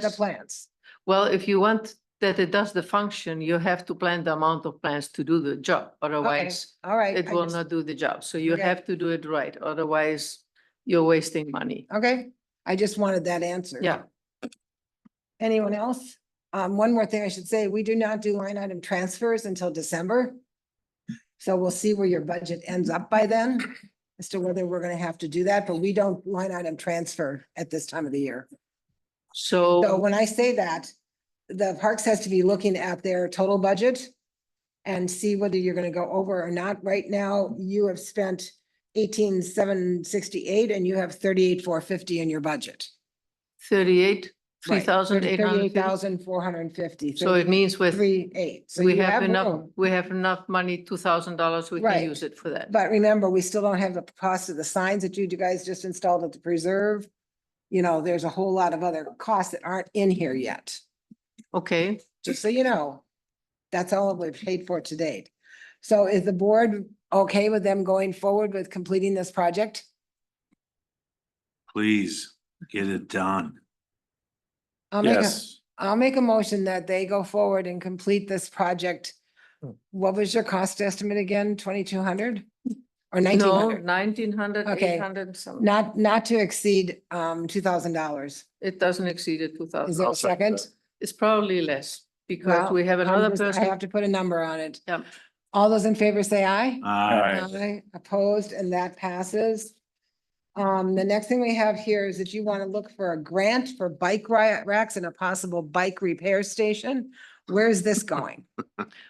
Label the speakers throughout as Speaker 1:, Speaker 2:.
Speaker 1: the plants.
Speaker 2: Well, if you want that it does the function, you have to plan the amount of plants to do the job, otherwise
Speaker 1: All right.
Speaker 2: it
Speaker 1: I
Speaker 2: will
Speaker 1: just-
Speaker 2: not do the job. So you
Speaker 1: Okay.
Speaker 2: have to do it right, otherwise you're wasting money.
Speaker 1: Okay, I just wanted that answer.
Speaker 2: Yeah.
Speaker 1: Anyone else? Um, one more thing I should say, we do not do line item transfers until December. So we'll see where your budget ends up by then as to whether we're gonna have to do that, but we don't line item transfer at this time of the year. So
Speaker 2: So,
Speaker 1: when I say that, the parks has to be looking at their total budget and see whether you're gonna go over or not. Right now, you have spent eighteen seven sixty-eight and you have thirty-eight four fifty in your budget.
Speaker 2: thirty-eight, three
Speaker 1: Right,
Speaker 2: thousand eight
Speaker 1: Thirty-eight
Speaker 2: hundred fifty.
Speaker 1: thousand four hundred and fifty.
Speaker 2: So it means with,
Speaker 1: Three eight. So
Speaker 2: we
Speaker 1: you
Speaker 2: have
Speaker 1: have
Speaker 2: enough,
Speaker 1: room.
Speaker 2: we have enough money, two thousand dollars, we
Speaker 1: Right.
Speaker 2: can use it for that.
Speaker 1: But remember, we still don't have the cost of the signs that you guys just installed at the preserve. You know, there's a whole lot of other costs that aren't in here yet.
Speaker 2: Okay,
Speaker 1: just so you know, that's all we've paid for to date. So is the board okay with them going forward with completing this project?
Speaker 3: Please get it done.
Speaker 1: I'll make a,
Speaker 3: Yes,
Speaker 1: I'll make a motion that they go forward and complete this project.
Speaker 3: Hmm.
Speaker 1: What was your cost estimate again? Twenty-two hundred? Or nineteen
Speaker 2: no,
Speaker 1: hundred?
Speaker 2: nineteen hundred,
Speaker 1: Okay.
Speaker 2: eight hundred, some,
Speaker 1: Not, not to exceed um two thousand dollars.
Speaker 2: it doesn't exceed it two
Speaker 1: Is
Speaker 2: thousand.
Speaker 1: there a
Speaker 3: I'll second
Speaker 1: second?
Speaker 2: It's probably less because
Speaker 1: Well,
Speaker 2: we have
Speaker 1: I'm
Speaker 2: another
Speaker 1: just-
Speaker 2: person.
Speaker 1: I have to put a number on it.
Speaker 2: Yep.
Speaker 1: All those in favor say aye?
Speaker 3: I,
Speaker 1: Aye, opposed, and that passes. Um, the next thing we have here is that you want to look for a grant for bike ri- racks and a possible bike repair station. Where is this going?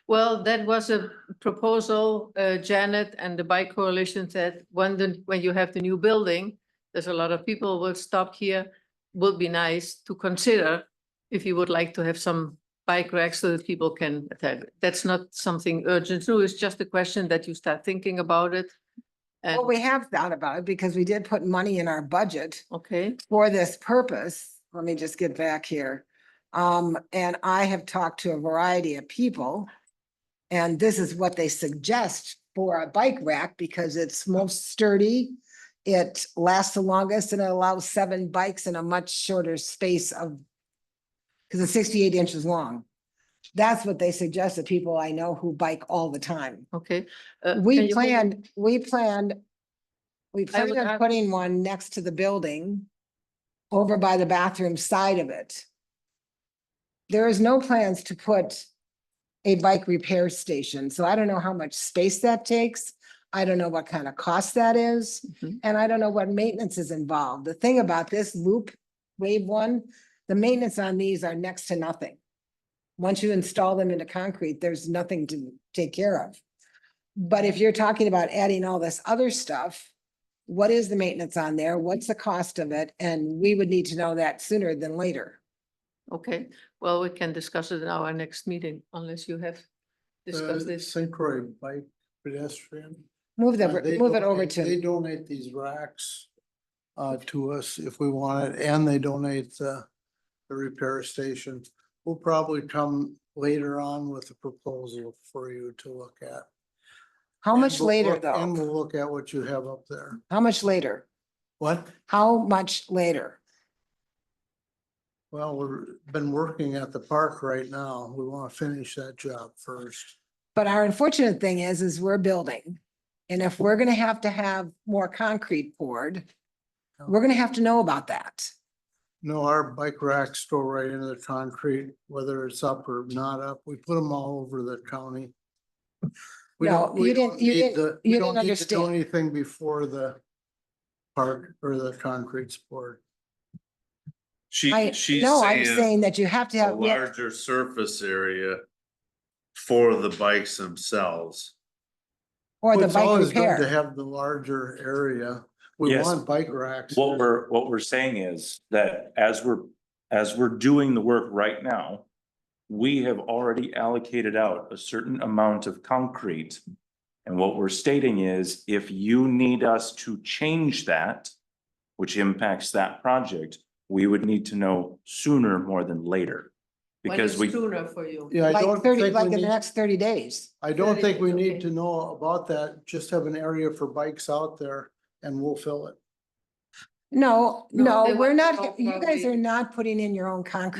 Speaker 2: Well, that was a proposal, uh, Janet and the bike coalition said, when the, when you have the new building, there's a lot of people will stop here, would be nice to consider if you would like to have some bike racks so that people can attack. That's not something urgent, so it's just a question that you start thinking about it. And,
Speaker 1: Well, we have thought about it because we did put money in our budget
Speaker 2: okay,
Speaker 1: for this purpose. Let me just get back here. Um, and I have talked to a variety of people. And this is what they suggest for a bike rack because it's most sturdy. It lasts the longest and it allows seven bikes in a much shorter space of, because it's sixty-eight inches long. That's what they suggest to people I know who bike all the time.
Speaker 2: okay. Uh, can
Speaker 1: We
Speaker 2: you hold-
Speaker 1: planned, we planned, we planned
Speaker 2: would
Speaker 1: on
Speaker 2: add-
Speaker 1: putting one next to the building over by the bathroom side of it. There is no plans to put a bike repair station, so I don't know how much space that takes. I don't know what kind of cost that is,
Speaker 2: Mhm.
Speaker 1: and I don't know what maintenance is involved. The thing about this loop wave one, the maintenance on these are next to nothing. Once you install them into concrete, there's nothing to take care of. But if you're talking about adding all this other stuff, what is the maintenance on there? What's the cost of it? And we would need to know that sooner than later.
Speaker 2: Okay, well, we can discuss it in our next meeting unless you have
Speaker 4: Uh,
Speaker 2: discussed this.
Speaker 4: St. Croix bike pedestrian.
Speaker 1: Move
Speaker 4: uh, they
Speaker 1: the, move it over
Speaker 4: donate- They
Speaker 1: to,
Speaker 4: donate these racks uh, to us if we want it, and they donate uh, the repair station. We'll probably come later on with a proposal for you to look at.
Speaker 1: how
Speaker 4: And
Speaker 1: much
Speaker 4: we'll
Speaker 1: later
Speaker 4: look- And
Speaker 1: though?
Speaker 4: we'll look at what you have up there.
Speaker 1: How much later?
Speaker 4: What?
Speaker 1: How much later?
Speaker 4: Well, we've been working at the park right now. We want to finish that job first.
Speaker 1: But our unfortunate thing is, is we're building. And if we're gonna have to have more concrete poured, we're gonna have to know about that.
Speaker 4: No, our bike racks go right into the concrete, whether it's up or not up. We put them all over the county. We
Speaker 1: No,
Speaker 4: don't- we
Speaker 1: you didn't-
Speaker 4: don't
Speaker 1: you
Speaker 4: need
Speaker 1: didn't-
Speaker 4: the-
Speaker 1: you
Speaker 4: we don't
Speaker 1: didn't
Speaker 4: need to do
Speaker 1: understand.
Speaker 4: Anything before the park or the concrete sport.
Speaker 1: I,
Speaker 3: she, she's
Speaker 1: no, I'm
Speaker 3: saying
Speaker 1: saying that you have to
Speaker 3: a
Speaker 1: have, yeah,
Speaker 3: larger surface area for the bikes themselves.
Speaker 1: or the
Speaker 4: It's
Speaker 1: bike
Speaker 4: always good To
Speaker 1: repair.
Speaker 4: have the larger area. We
Speaker 5: Yes.
Speaker 4: want bike racks.
Speaker 5: What we're, what we're saying is that as we're, as we're doing the work right now, we have already allocated out a certain amount of concrete. And what we're stating is if you need us to change that, which impacts that project, we would need to know sooner more than later.
Speaker 2: When
Speaker 5: Because
Speaker 2: is
Speaker 5: we,
Speaker 2: Sooner for you.
Speaker 4: Yeah, I
Speaker 1: Like
Speaker 4: don't
Speaker 1: thirty,
Speaker 4: think
Speaker 1: like in
Speaker 4: we
Speaker 1: the
Speaker 4: need-
Speaker 1: next thirty days.
Speaker 4: I don't think we
Speaker 2: Okay.
Speaker 4: need to know about that. Just have an area for bikes out there and we'll fill it.
Speaker 1: No,
Speaker 2: No,
Speaker 1: no,
Speaker 2: they
Speaker 1: we're
Speaker 2: want to
Speaker 1: not,
Speaker 2: know
Speaker 1: you guys
Speaker 2: probably-
Speaker 1: are not putting in your own concrete.